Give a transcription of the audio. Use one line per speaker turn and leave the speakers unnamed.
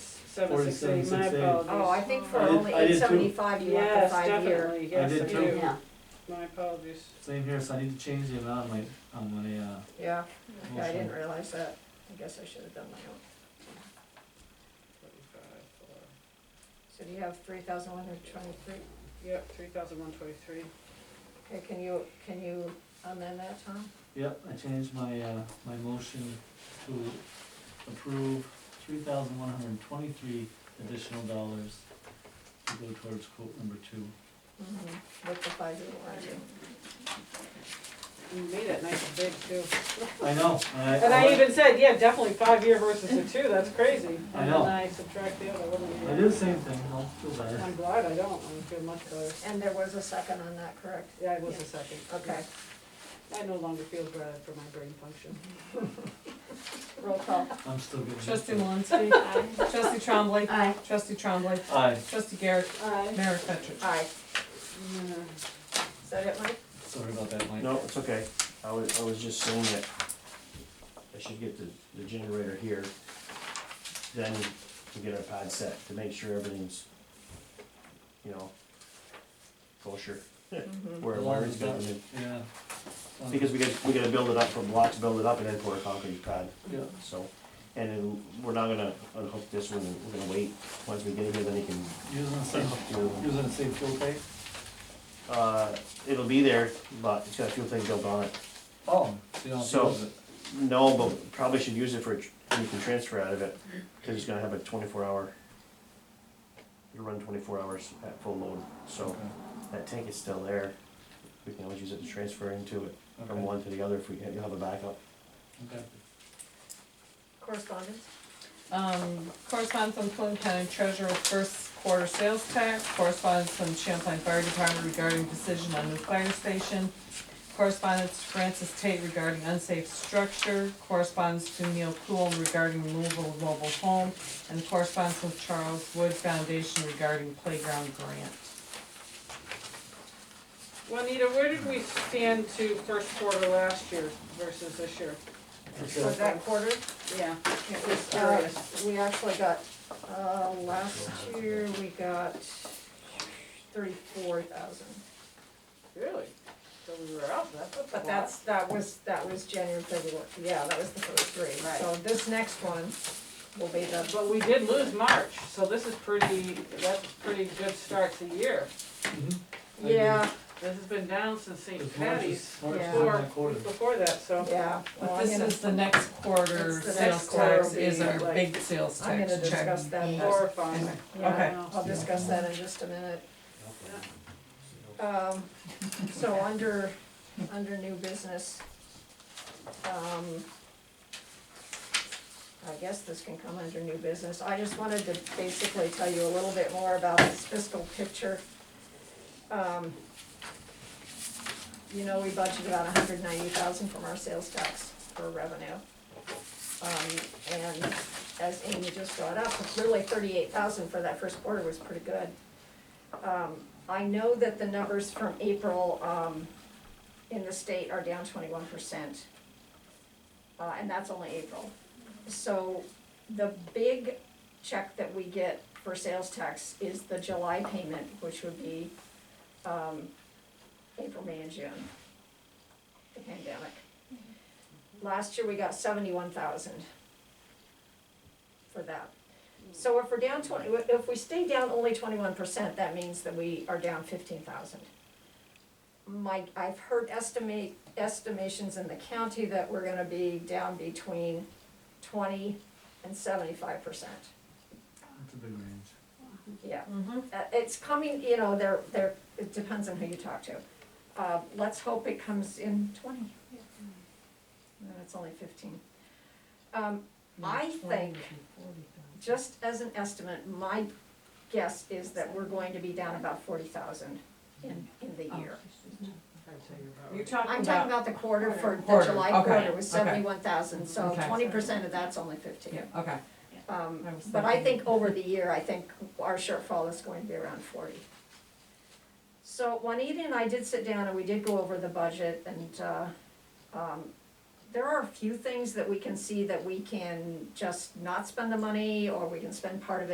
forty-seven, six, eight, my
47,680.
apologies.
Oh, I think for
I did-
only
I did
eight
too.
seventy-five, you want the
Yes,
five year.
definitely, yes,
did
I
too.
do,
Yeah,
my apologies.
Same here, so I need to change the amount on my, on my, uh,
yeah, Yeah, I
motion.
didn't realize that, I guess I should have done my own. So do you have three thousand one hundred twenty-three?
Yep, three thousand one twenty-three.
Okay, can you, can you amend that, Tom?
Yep, I changed my, uh, my motion to approve three thousand one hundred and twenty-three additional dollars to go towards quote number two.
Mm-hmm. With the five year warranty.
You made it nice and big too.
I know, I,
And I even said, yeah, definitely five year versus the two, that's crazy.
I know.
And then I subtract the other one.
I did the same thing, I'll feel better.
I'm glad I don't, I feel much better.
And there was a second on that, correct?
Yeah, it was a second.
Okay,
I no longer feel bad for my brain function.
roll call.
I'm still getting. used
Trustee
to it.
Malinsky. Trustee Trombley.
Aye.
Trustee Trombley.
Aye,
Trustee Garrett.
Aye.
Mayor Petrich.
Aye.
Mm.
Is that it, Mike?
sorry about that, Mike.
No, it's okay, I was, I was just saying that I should get the, the generator here, then to get our pad set, to make sure everything's, you know, kosher,
Mm-hmm.
where
As
it
long
wiring's
as that-
going in.
Yeah. Um,
Because we gotta, we gotta build it up from blocks, build it up, and then pour a concrete pad,
Yeah,
so, and then we're not gonna unhook this one, we're gonna wait, once we get it here, then he can
using the same,
unhook the other one.
using the same fuel tank?
Uh, it'll be there, but it's got a few things built on it.
Oh, so you don't
So-
use it?
No, but probably should use it for, you can transfer out of it, cause it's gonna have a twenty-four hour. It'll run twenty-four hours at full load, so
Okay,
that tank is still there. We can always use it to transfer into it, from
Okay,
one to the other if we, you'll have a backup.
okay.
Correspondence?
Um, correspondence from Clinton County Treasurer first quarter sales tax, correspondence from Champlain Fire Department regarding decision on new fire station, correspondence to Francis Tate regarding unsafe structure, correspondence to Neil Cool regarding removal of mobile home, and correspondence with Charles Wood Foundation regarding playground grant.
Juanita, where did we stand to first quarter last year versus this year?
For that quarter?
Yeah,
It
Just
was, uh, we actually got, uh, last year, we got thirty-four thousand.
really? So we were up, that's a
But
lot.
that's, that was, that was January, February, yeah, that was the first three.
Right.
So this next one will be the,
But we did lose March, so this is pretty, that's pretty good start to the year.
Mhm. agree.
yeah,
This has been down since St.
Because March is-
Patty's,
March is
Yeah.
in
before,
that quarter.
before that, so.
yeah. well,
But
I'm
this
gonna-
is the next quarter,
It's the
sales
next quarter
tax
will
is
be,
our
like-
big sales
I'm
tax check. Mm.
gonna discuss that
Yeah.
more.
Horrifying.
yeah,
Okay.
I'll discuss that in just a minute. Um, so under, under new business, um, I guess this can come under new business. I just wanted to basically tell you a little bit more about this fiscal picture. Um, you know, we budgeted about a hundred ninety thousand from our sales tax for revenue. Um, and as Amy just brought up, really thirty-eight thousand for that first quarter was pretty good. Um, I know that the numbers from April, um, in the state are down twenty-one percent. Uh, and that's only April. So the big check that we get for sales tax is the July payment, which would be, um, April, May, and June. The pandemic. Last year, we got seventy-one thousand for that. So if we're down twenty, if we stay down only twenty-one percent, that means that we are down fifteen thousand. My, I've heard estimate, estimations in the county that we're gonna be down between twenty and seventy-five percent.
That's a big range.
Yeah,
Mm-hmm.
uh, it's coming, you know, there, there, it depends on who you talk to. Uh, let's hope it comes in twenty. No, it's only fifteen. Um, I think just as an estimate, my guess is that we're going to be down about forty thousand in, in
Oh.
the year.
You're talking
I'm talking
about,
about the quarter for, the
Quarter,
July
okay,
quarter was
okay.
seventy-one thousand, so
Okay.
twenty percent of that's only fifteen.
yeah, okay.
Um,
I was
but I
thinking-
think over the year, I think our shortfall is going to be around forty. So Juanita and I did sit down and we did go over the budget and, uh, um, there are a few things that we can see that we can just not spend the money or we can spend part of it.